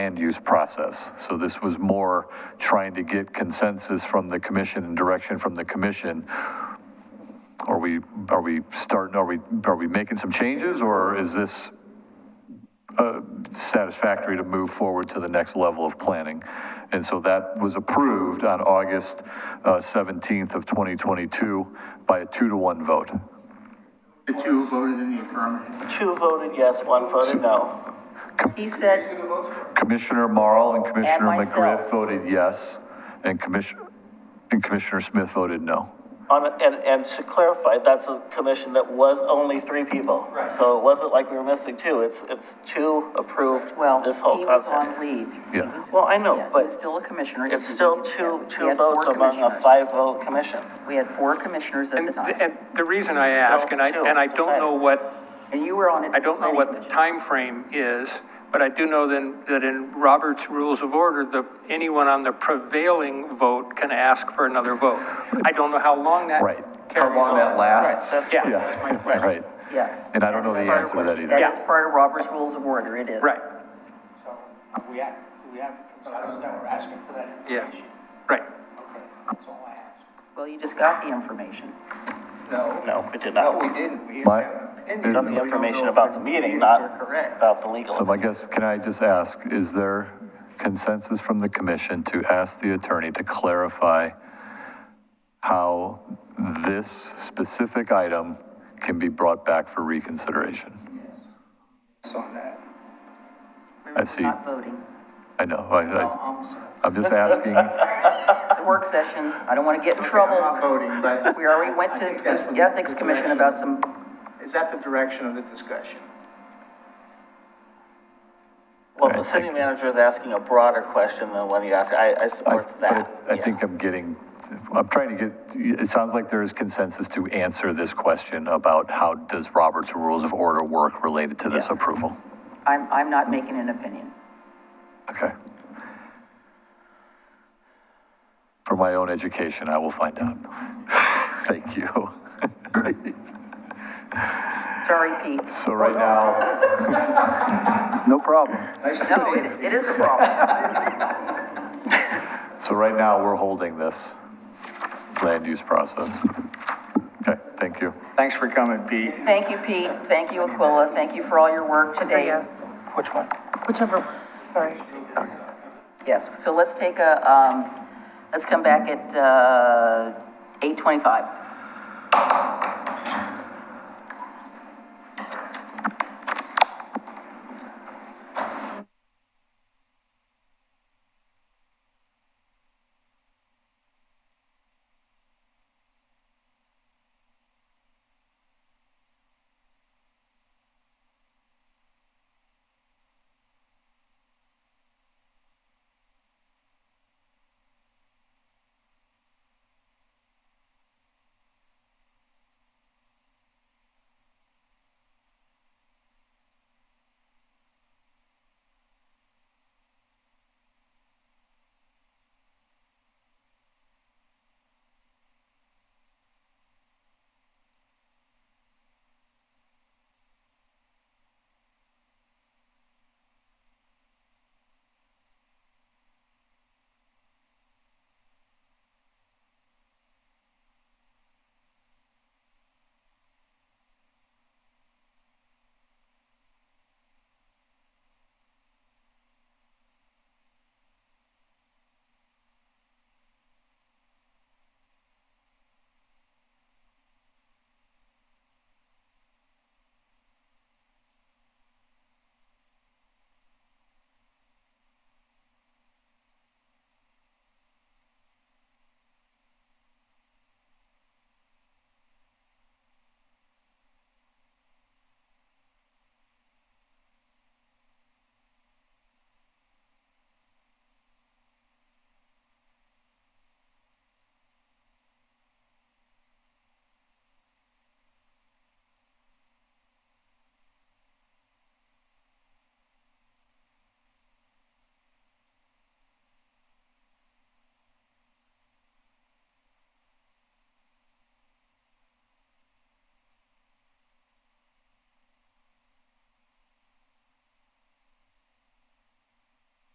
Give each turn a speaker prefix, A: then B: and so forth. A: land use process. So this was more trying to get consensus from the commission and direction from the commission. Are we, are we starting, are we, are we making some changes, or is this uh, satisfactory to move forward to the next level of planning? And so that was approved on August uh, 17th of 2022 by a two to one vote.
B: The two voted in the affirmative.
C: Two voted yes, one voted no.
D: He said,
A: Commissioner Marl and Commissioner
D: And myself.
A: McGriff voted yes, and Commissioner, and Commissioner Smith voted no.
C: On, and, and to clarify, that's a commission that was only three people. So it wasn't like we were missing two, it's, it's two approved
D: well,
C: this
D: he
C: whole
D: was on
C: concept.
D: leave.
A: Yeah.
D: He was-
C: Well, I know,
D: yeah, he
C: but
D: was still a commissioner. He
C: It's
D: was
C: still
D: leaving.
C: two,
D: We
C: two
D: had four
C: votes among a
D: commissioners.
C: five-vote commission.
D: We had four commissioners at
E: And,
D: the time,
E: and the reason I ask, and I, and I don't know what,
D: and you were on it.
E: I don't know what the time frame is, but I do know then, that in Robert's Rules of Order, the, anyone on the prevailing vote can ask for another vote. I don't know how long that.
A: Right.
E: carries on.
A: lasts?
C: Right, that's-
E: Yeah.
A: Yeah,
E: Right.
A: right.
D: Yes.
A: And I don't know the
D: That is
A: answer to
D: part
A: that
D: of-
A: either.
D: That is part of Robert's Rules of Order, it is.
E: Right,
B: We have, we have consensus that we're asking for that
E: yeah,
B: information.
E: right.
B: Okay, that's all I asked.
D: Well, you just got the information.
B: No,
C: No, we did
B: no,
C: not.
B: we didn't. We
A: My-
B: have an
A: We
B: opinion.
C: Got
B: but we
C: the
B: don't
C: information
B: know
C: about
B: if
C: the meeting,
B: views
C: not
B: are Correct.
C: about the
A: So
C: legal.
A: my guess, can I just ask, is there consensus from the commission to ask the attorney to clarify how this specific item can be brought back for reconsideration?
B: On that.
D: We
A: I
D: were
A: see.
D: Not voting.
A: I know, I, I,
B: I'm sorry.
A: I'm just asking,
D: It's a work session, I don't want to get in trouble.
B: I'm not voting, but.
D: We already went
B: I
D: to
B: think that's what
D: the Ethics
B: the
D: Commission
B: direction-
D: about some,
B: Is that the direction of the discussion?
C: Well, the city manager is asking a broader question than what he asked. I, I
A: I,
C: support
A: but
C: that.
A: I- I
C: yeah.
A: think I'm getting, I'm trying to get, it sounds like there is consensus to answer this question about how does Robert's Rules of Order work related to this approval?
D: I'm, I'm not making an opinion.
A: Okay. For my own education, I will find out. Thank you.
D: Sorry, Pete.
A: So right now. No problem.
B: Nice to
D: No,
B: see you.
D: it, it is a problem.
A: So right now, we're holding this land use process. Okay, thank you.
B: Thanks for coming, Pete.
D: Thank you, Pete, thank you, Aquila, thank you for all your work today.
B: Which one?
F: Whichever, sorry.
D: Yes, so let's take a, um, let's come back at, uh, eight twenty-five.